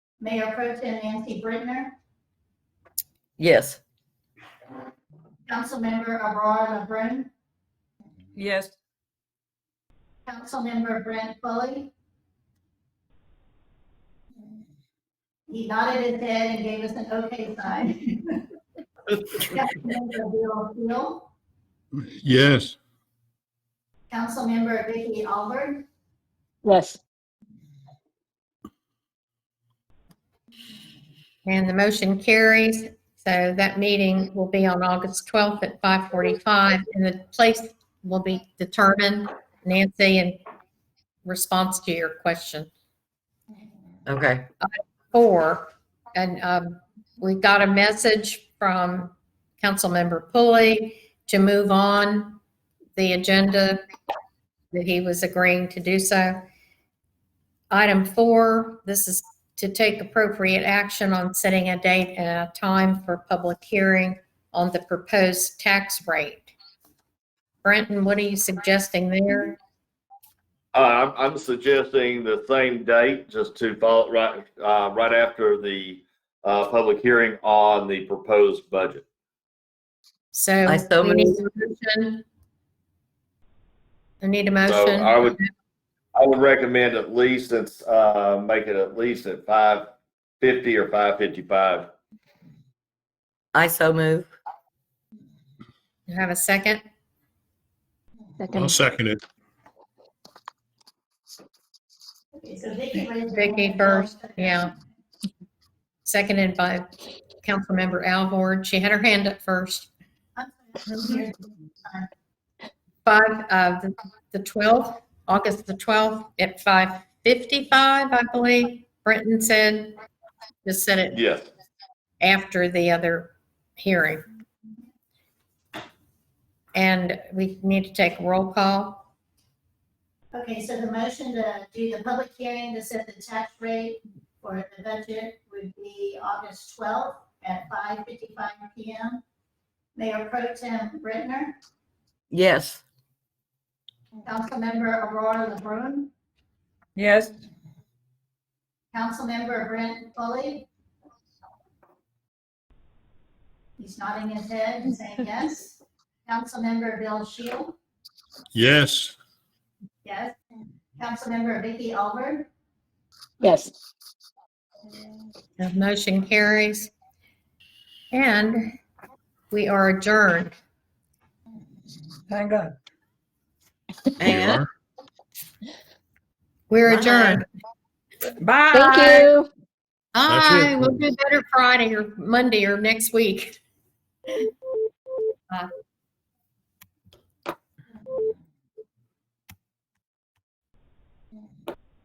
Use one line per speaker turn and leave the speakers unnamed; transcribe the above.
Mayor Pro Tem Nancy Britner,
Yes.
Councilmember Aurora LeBrun,
Yes.
Councilmember Brent Foley. He nodded his head and gave us an okay sign. Councilmember Bill Steele,
Yes.
Councilmember Vicky Albert,
yes,
And the motion carries. So that meeting will be on August 12th at 5:45 and the place will be determined, Nancy, in response to your question.
Okay.
Four, and um, we got a message from Councilmember Pulley to move on the agenda, that he was agreeing to do so. Item four, this is to take appropriate action on setting a date and a time for public hearing on the proposed tax rate. Brenton, what are you suggesting there?
Uh, I'm, I'm suggesting the same date, just to follow right, uh, right after the, uh, public hearing on the proposed budget.
So.
I so
we need
move.
a motion. I need a
So
motion.
I would, I would recommend at least it's, uh, make it at least at five fifty or five fifty-five.
I so move.
You Have a second?
I'll
second,
second it.
Okay, so Vicky raised. her
Vicky
hand.
first, yeah. Seconded by Councilmember Alvord. She had her hand up first.
I'm sorry,
Five, uh, the- the 12th, August the 12th at 5:55, I believe, Brenton said. Just said it
Yes.
after the other hearing. And we need to take a roll call.
Okay, so the motion to do the public hearing to set the tax rate for the budget would be August twelfth at five fifty-five P M. Mayor Pro Tem Britner,
Yes.
Councilmember Aurora LeBrun,
Yes.
Councilmember Brent Foley. He's nodding his head and saying yes. Councilmember Bill Shield,
Yes.
yes. Councilmember Vicky Albert,
yes.
The motion carries. And we are adjourned.
Thank God.
you
And
are.
We're
Bye.
adjourned.
Bye.
Thank you.
That's it.
Aye, we'll do better Friday or Monday or next week.